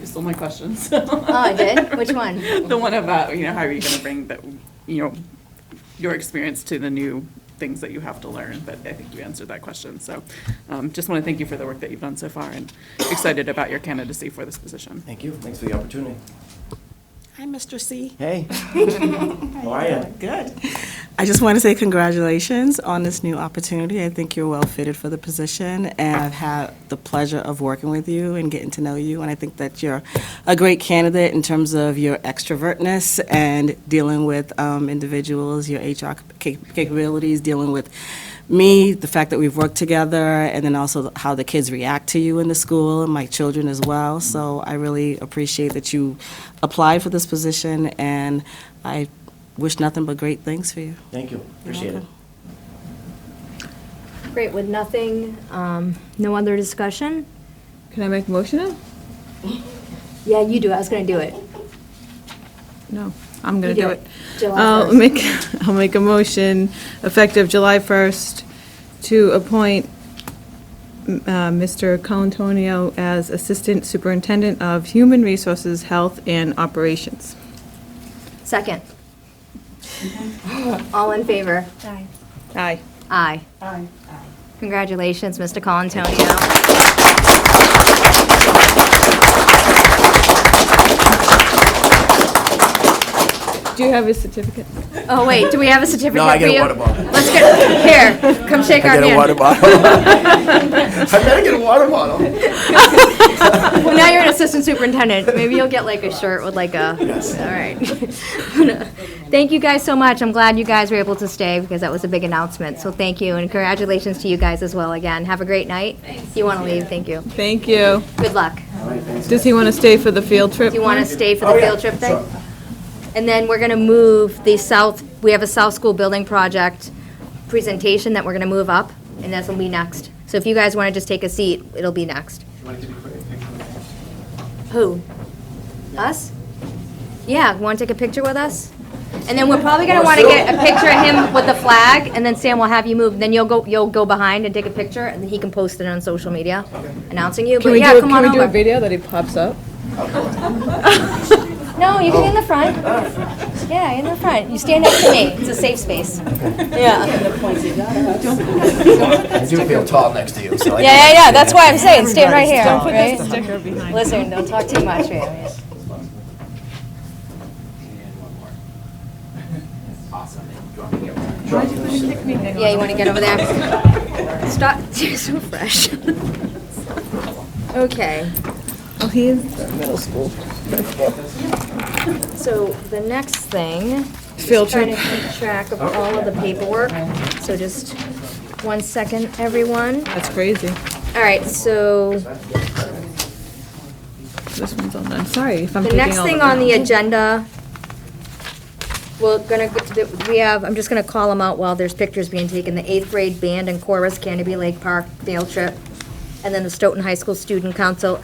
You stole my question, Oh, I did? Which one? The one about, you know, how are you gonna bring the, you know, your experience to the new things that you have to learn, but I think you answered that question, so, um, just wanna thank you for the work that you've done so far and excited about your candidacy for this position. Thank you. Thanks for the opportunity. Hi, Mr. C. Hey. How are you? Good. I just want to say congratulations on this new opportunity. I think you're well fitted for the position, and I've had the pleasure of working with you and getting to know you. And I think that you're a great candidate in terms of your extrovertness and dealing with um, individuals, your HR cap- capabilities, dealing with me, the fact that we've worked together, and then also how the kids react to you in the school and my children as well. So I really appreciate that you applied for this position, and I wish nothing but great things for you. Thank you. Appreciate it. welcome. Great, with nothing, um, no other discussion? Can I make a motion now? Yeah, you do, I was gonna do it. No, I'm You going to do it. July I'll 1st. make, I'll make a motion effective July 1st to appoint m- uh, Mr. Colantonio as Assistant Superintendent of Human Resources, Health, and Operations. Second. All in favor? Aye. Aye. Aye. Aye. Congratulations, Mr. Colantonio. Do you have his certificate? Oh, wait, do we have a certificate No, I for get a you? water bottle. Let's get, here, come shake I our hand. get a water bottle. I better get a water bottle. Well, now you're an assistant superintendent. Maybe you'll get like a shirt with like a, Yes. all right. Thank you guys so much. I'm glad you guys were able to stay because that was a big announcement. So thank you and congratulations to you guys as well again. Have a great night. If you want to leave, thank you. Thank you. Good luck. Does he want to stay for the field trip? Do you want to stay for the field trip thing? And then we're going to move the south, we have a South School Building Project presentation that we're going to move up and that's will be next. So if you guys want to just take a seat, it'll be next. Who? Us? Yeah, want to take a picture with us? And then we're probably gonna wanna get a picture of him with the flag, and then Sam will have you move, then you'll go, you'll go behind and take a picture, and he can post it on social media announcing you, Can but we yeah, do, come on can we do a over. video that he pops up? No, you can in the front. Yeah, in the front. You stand next to me. It's a safe space. Yeah. I do feel tall next to you, so I Yeah, yeah, yeah, that's why I'm saying, stand right here, Don't put that right? sticker behind. Listen, don't talk too much, right? Yeah, you want to get over there? Stop, you're so fresh. Okay, Oh, he is. so the next thing, Field trying to trip. keep track of all of the paperwork, so just one second, everyone. That's crazy. All right, so This one's on there. I'm sorry if I'm the taking all next thing of on the them. agenda, we're gonna, get to the- we have, I'm just gonna call them out while there's pictures being taken, the eighth grade band and chorus, Canterbury Lake Park field trip, and then the Stoughton High School Student Council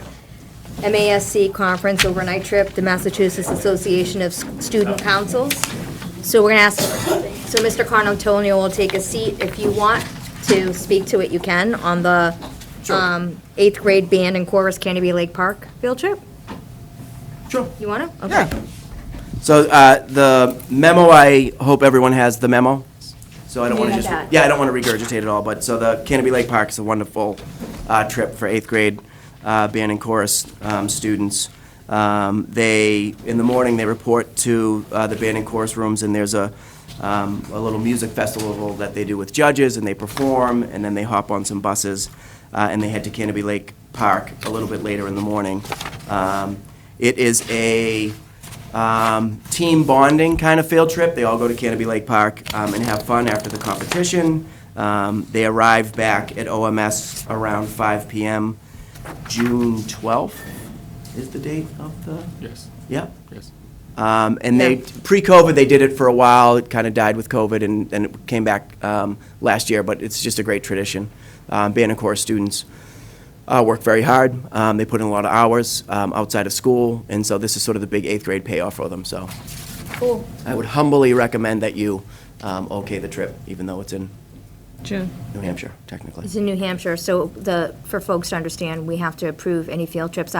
MASC conference overnight trip, the Massachusetts Association of S- Student Councils. So we're gonna ask, so Mr. Conantonio will take a seat. If you want to speak to it, you can, on the um, eighth grade band and chorus Canterbury Lake Park field trip? Sure. You wanna? Okay. So uh, the memo, I hope everyone has the memo. So I don't want to Yeah. just, Got it. yeah, I don't want to regurgitate it all, but so the Canterbury Lake Park is a wonderful uh, trip for eighth grade uh, band and chorus um, students. Um, They, in the morning, they report to uh, the band and chorus rooms, and there's a, um, a little music festival that they do with judges, and they perform, and then they hop on some buses, uh, and they head to Canterbury Lake Park a little bit later in the morning. Um, It is a, um, team bonding kind of field trip. They all go to Canopy Lake Park um, and have fun after the competition. Um, they arrive back at OMS around 5 p.m. June 12th is the date of the. Yes, Yep. yes. Um, and they, pre-COVID, they did it for a while. It kind of died with COVID, and, and it came back um, last year. But it's just a great tradition. Um, band and chorus students uh, work very hard. Um, they put in a lot of hours um, outside of school, and so this is sort of the big eighth grade payoff for them. So, Cool. I would humbly recommend that you um, okay the trip, even though it's in June. New Hampshire, technically. It's in New Hampshire, so the, for folks to understand, we have to approve any field trips